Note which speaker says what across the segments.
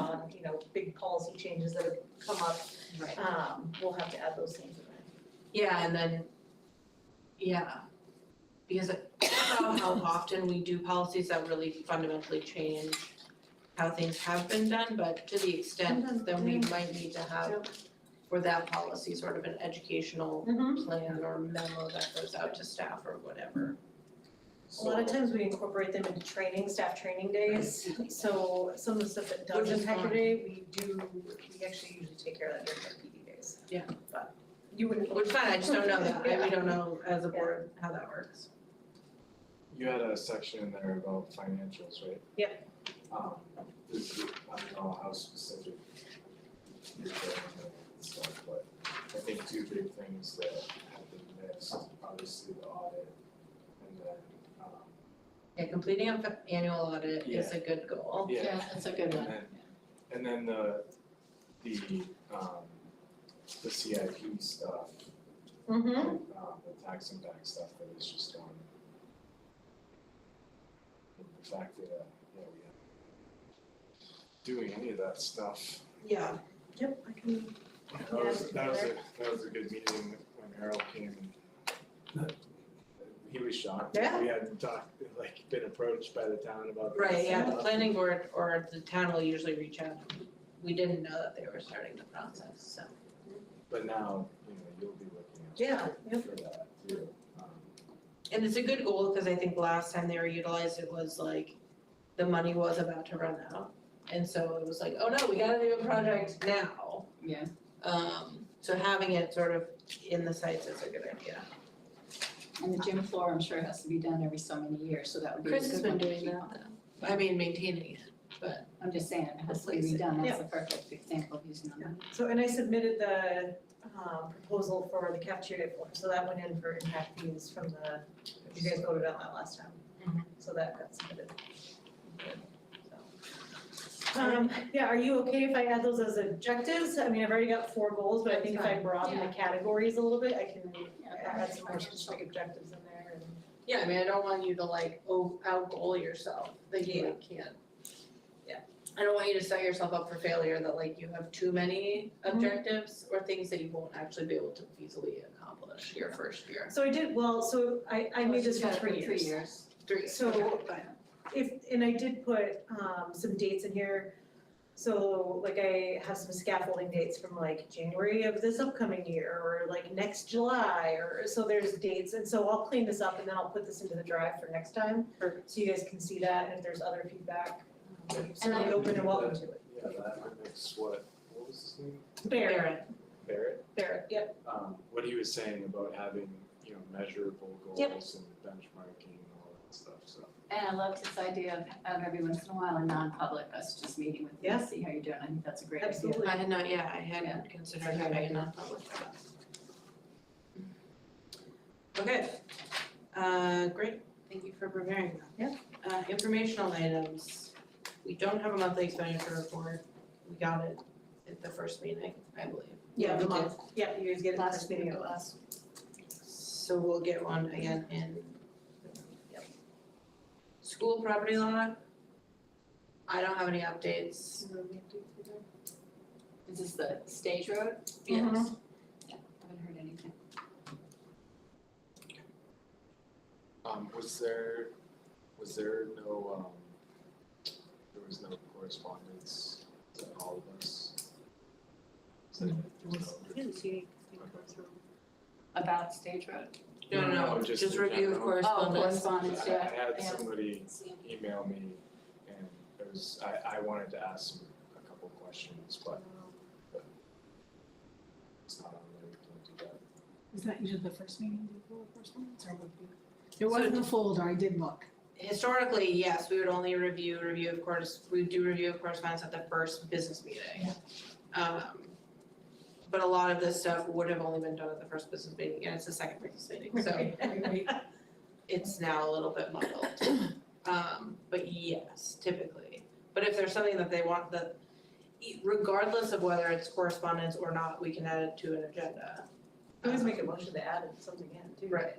Speaker 1: you know, big policy changes that have come up,
Speaker 2: Right.
Speaker 1: um, we'll have to add those things in.
Speaker 2: Yeah, and then, yeah, because I don't know how often we do policies that really fundamentally change how things have been done, but to the extent that we might need to have for that policy, sort of an educational
Speaker 1: Mm-hmm.
Speaker 2: plan or memo that goes out to staff or whatever.
Speaker 1: A lot of times we incorporate them into training, staff training days, so some of the stuff that
Speaker 2: Which
Speaker 1: does
Speaker 2: is
Speaker 1: impact your
Speaker 2: fine.
Speaker 1: day, we do, we actually usually take care of that during our PD days.
Speaker 2: Yeah.
Speaker 1: But you wouldn't.
Speaker 2: Which is fine, I just don't know that, I, we don't know as a board how that works.
Speaker 3: You had a section in there about financials, right? Yep. Um, this is, I don't know how specific you're going and stuff, but I think two big things that have been missed, obviously the audit and then, um,
Speaker 2: Yeah, completing an annual audit is a good goal.
Speaker 3: yeah,
Speaker 4: that's a good
Speaker 3: and then, and then the, the, um, the CIP stuff,
Speaker 1: Mm-hmm.
Speaker 3: um, the tax impact stuff that is just gone. And the fact that, uh, yeah, we have doing any of that stuff.
Speaker 2: Yeah.
Speaker 1: Yep, I can,
Speaker 3: That was, that was a, that was a good meeting when Harold came and he was shocked.
Speaker 2: Yeah.
Speaker 3: We hadn't talked, like, been approached by the town about this.
Speaker 2: Right, yeah, the
Speaker 3: stuff.
Speaker 2: planning board or the town will usually reach out. We didn't know that they were starting the process, so.
Speaker 3: But now, you know, you'll be looking at.
Speaker 1: Yeah, yep.
Speaker 3: For that too. Um,
Speaker 2: And it's a good goal, because I think last time they were utilized, it was like, the money was about to run out. And so it was like, oh no, we gotta do a project now.
Speaker 4: Yeah.
Speaker 2: Um, so having it sort of in the sights is a good idea.
Speaker 4: And the gym floor, I'm sure, has to be done every so many years, so that would be a
Speaker 2: Chris has
Speaker 4: good
Speaker 2: been
Speaker 4: one to
Speaker 2: doing
Speaker 4: keep.
Speaker 2: that, I mean, maintaining it.
Speaker 4: I'm just saying, it has to be
Speaker 2: Replace it.
Speaker 4: redone, that's a perfect example of using them.
Speaker 1: so, and I submitted the, um, proposal for the cafeteria form, so that went in for impact fees from the, you guys voted on that last time.
Speaker 2: Mhm.
Speaker 1: So that got submitted. So. Um, yeah, are you okay if I add those as objectives? I mean, I've already got four goals, but I think if I
Speaker 4: That's
Speaker 1: broaden the categories a little bit, I can add some more
Speaker 4: Yeah.
Speaker 1: specific objectives in there and.
Speaker 2: Yeah, I mean, I don't want you to like, oh, out-goal yourself, that you like can't. Yeah. I don't want you to set yourself up for failure, that like you have too many objectives or things that you won't actually be able to feasibly accomplish your first year.
Speaker 1: So I did, well, so I, I made this for three years.
Speaker 4: Three years.
Speaker 2: Three,
Speaker 1: So-
Speaker 2: okay, fine.
Speaker 1: if, and I did put um some dates in here. So like I have some scaffolding dates from like January of this upcoming year or like next July or so there's dates. And so I'll clean this up and then I'll put this into the drive for next time,
Speaker 2: Perfect.
Speaker 1: so you guys can see that and if there's other feedback, um,
Speaker 4: And
Speaker 1: certainly
Speaker 4: I-
Speaker 1: open and welcome to it.
Speaker 3: Yeah, that mimics what, what was his name?
Speaker 1: Barrett,
Speaker 2: Barrett,
Speaker 3: Barrett?
Speaker 1: Barrett, yep,
Speaker 3: um, what he was saying about having, you know, measurable
Speaker 1: Yep.
Speaker 3: goals and benchmarking and all that stuff, so.
Speaker 4: And I love this idea of, of every once in a while, in non-public, us just meeting with you,
Speaker 1: Yeah.
Speaker 4: and see how you're doing, I think that's a great idea.
Speaker 1: absolutely.
Speaker 2: I had not, yeah, I hadn't considered having a non-public for that. Okay, uh, great, thank you for preparing that. Yeah. Uh, informational items, we don't have a monthly expenditure report, we got it at the first meeting, I believe.
Speaker 1: Yeah, the
Speaker 2: we did.
Speaker 1: month, yeah, you guys get it
Speaker 4: Last
Speaker 1: first meeting
Speaker 4: meeting.
Speaker 1: of last.
Speaker 2: So we'll get one again in. School property law. I don't have any updates.
Speaker 4: Is this the stage road?
Speaker 1: Mm-hmm.
Speaker 2: Yes.
Speaker 4: Yeah, haven't heard anything.
Speaker 3: Um, was there, was there no, um, there was no correspondence to all of us? Is that it? There's no-
Speaker 4: About stage road?
Speaker 2: No,
Speaker 3: No,
Speaker 2: no,
Speaker 3: no, just
Speaker 2: just
Speaker 3: in
Speaker 2: review
Speaker 3: general.
Speaker 4: Oh,
Speaker 2: correspondence.
Speaker 4: correspondence,
Speaker 3: I, I
Speaker 4: yeah.
Speaker 3: had
Speaker 4: yeah.
Speaker 3: somebody email me and it was, I, I wanted to ask him a couple questions, but, but it's not on there, we can't do that.
Speaker 5: Is that usually the first meeting, the full correspondence, or would it be?
Speaker 2: So
Speaker 5: It was in the folder, I did look.
Speaker 2: Historically, yes, we would only review, review of course, we do review of correspondence at the first business meeting. Um, but a lot of this stuff would have only been done at the first business meeting, and it's the second business meeting, so. it's now a little bit muddled. Um, but yes, typically. But if there's something that they want that, e, regardless of whether it's correspondence or not, we can add it to an agenda. Um,
Speaker 1: We Always make a motion to add something in too,
Speaker 2: Right,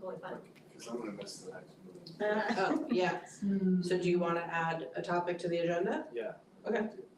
Speaker 1: totally fine.
Speaker 3: Cause I'm gonna miss the next meeting.
Speaker 1: Uh,
Speaker 5: Mm.
Speaker 2: oh, yeah, so do you wanna add a topic to the agenda?
Speaker 3: Yeah.
Speaker 2: Okay.